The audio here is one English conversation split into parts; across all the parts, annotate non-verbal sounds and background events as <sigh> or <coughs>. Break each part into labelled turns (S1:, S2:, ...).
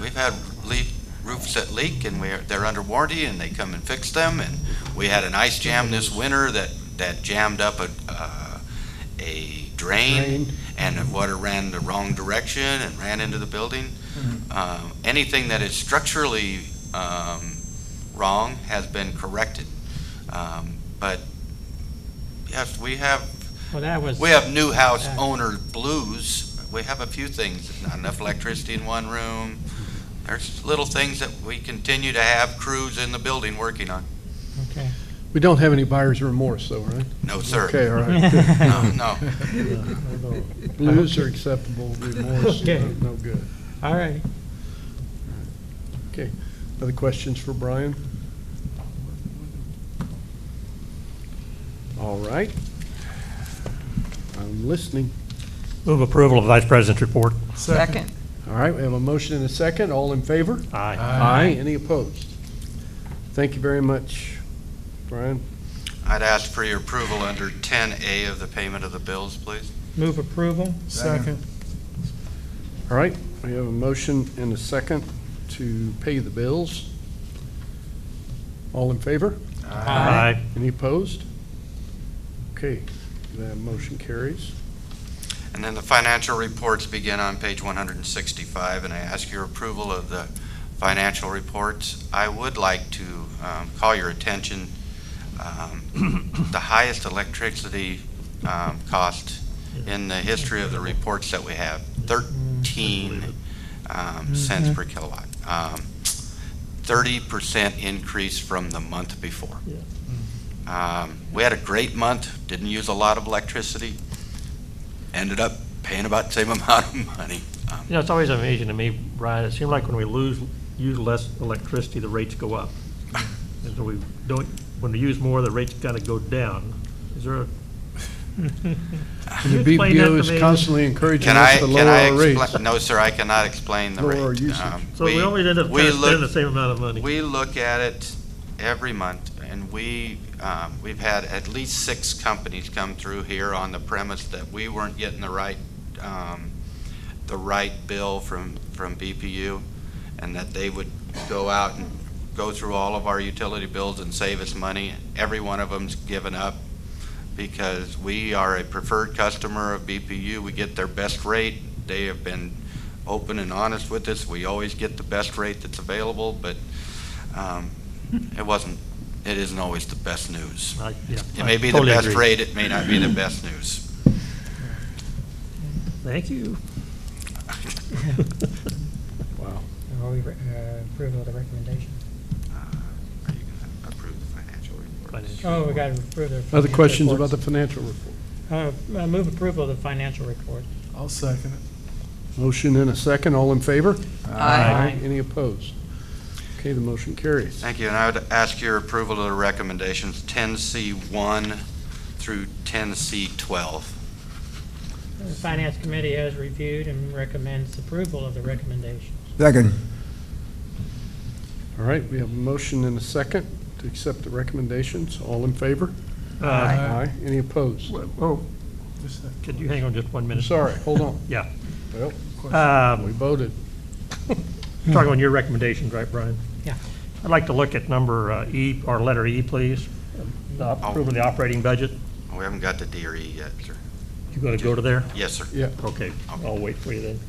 S1: we've had leak, roofs that leak and we're, they're under warranty and they come and fix them. And we had an ice jam this winter that, that jammed up a, uh, a drain and the water ran the wrong direction and ran into the building. Um, anything that is structurally, um, wrong has been corrected. Um, but yes, we have
S2: Well, that was,
S1: we have new house owner blues. We have a few things, not enough electricity in one room. There's little things that we continue to have crews in the building working on.
S2: okay.
S3: We don't have any buyer's remorse, though, right?
S1: No, sir.
S3: Okay, all right.
S1: <laughs>
S3: good.
S1: No, no.
S3: Blues are acceptable, remorse,
S2: Okay.
S3: no no good.
S2: All right.
S3: Okay, other questions for Brian? All right. I'm listening.
S4: Move approval of Vice President's report.
S5: Second.
S3: All right, we have a motion and a second. All in favor?
S4: Aye.
S3: Aye. Any opposed? Thank you very much, Brian.
S1: I'd ask for your approval under ten A of the payment of the bills, please.
S2: Move approval?
S5: Second.
S3: All right, we have a motion and a second to pay the bills. All in favor?
S4: Aye.
S3: Any opposed? Okay, that motion carries.
S1: And then the financial reports begin on page one hundred and sixty-five, and I ask your approval of the financial reports. I would like to um, call your attention, um, <coughs> the highest electricity um, cost in the history of the reports that we have, thirteen um, cents per kilowatt. Um, Thirty percent increase from the month before. Um, We had a great month, didn't use a lot of electricity, ended up paying about the same amount of money. Um,
S4: You know, it's always amazing to me, Brian, it seems like when we lose, use less electricity, the rates go up. And so we don't, when we use more, the rates gotta go down. Is there a? Can you
S3: The
S4: explain that
S3: BPO
S4: to
S3: is
S4: me?
S3: constantly encouraging
S1: Can I,
S3: us to lower
S1: can I
S3: our rates.
S1: explain? No, sir, I cannot explain the rate.
S3: Lower usage.
S1: Um,
S4: So we always end up
S1: we
S4: trying to spend the
S1: look-
S4: same amount of money.
S1: We look at it every month, and we, um, we've had at least six companies come through here on the premise that we weren't getting the right, um, the right bill from, from BPU, and that they would go out and go through all of our utility bills and save us money. Every one of them's given up because we are a preferred customer of BPU. We get their best rate. They have been open and honest with us. We always get the best rate that's available, but um, it wasn't, it isn't always the best news.
S4: I- yeah,
S1: It
S4: I
S1: may be the
S4: totally
S1: best
S4: agree.
S1: rate, it may not be the best news. <laughs>
S4: Thank you.
S3: Wow.
S6: Are we, uh, approval of the recommendation?
S1: Uh, Are you going to approve the financial report?
S4: Financial.
S2: Oh, we got to approve the.
S3: Other questions about the financial report?
S2: Uh, uh, move approval of the financial report.
S5: I'll second it.
S3: Motion and a second, all in favor?
S4: Aye.
S3: Any opposed? Okay, the motion carries.
S1: Thank you, and I would ask your approval of the recommendations 10C1 through 10C12.
S2: The Finance Committee has reviewed and recommends approval of the recommendations.
S7: Second.
S3: All right, we have a motion and a second to accept the recommendations, all in favor?
S4: Uh,
S3: Aye. Any opposed?
S5: Whoa. Just a
S4: Could you hang on just one
S3: I'm
S4: minute?
S3: sorry, hold on.
S4: Yeah.
S3: Well, we
S4: Um,
S3: voted.
S4: Talking on your recommendations, right, Brian?
S2: Yeah.
S4: I'd like to look at number uh, E, or letter E, please. The op- Approval of the operating budget.
S1: We haven't got the DRE yet, sir.
S4: You gonna go to there?
S1: Yes, sir.
S3: Yeah,
S4: Okay, I'll wait for you then.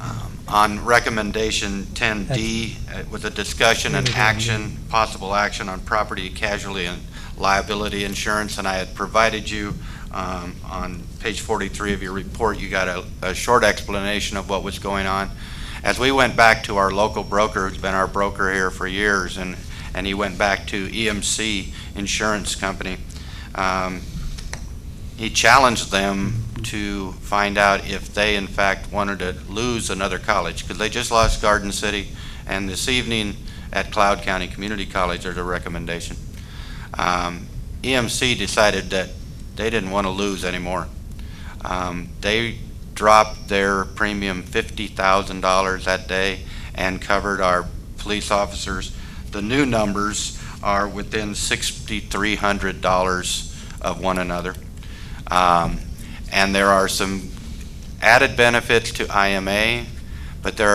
S1: Um, On recommendation 10D, it was a discussion and action, possible action on property casualty and liability insurance, and I had provided you um, on page 43 of your report, you got a- a short explanation of what was going on. As we went back to our local broker, who's been our broker here for years, and and he went back to EMC Insurance Company, um, he challenged them to find out if they in fact wanted to lose another college, because they just lost Garden City, and this evening at Cloud County Community College, there's a recommendation. Um, EMC decided that they didn't want to lose anymore. Um, They dropped their premium fifty thousand dollars that day and covered our police officers. The new numbers are within sixty-three hundred dollars of one another. Um, And there are some added benefits to IMA, but there are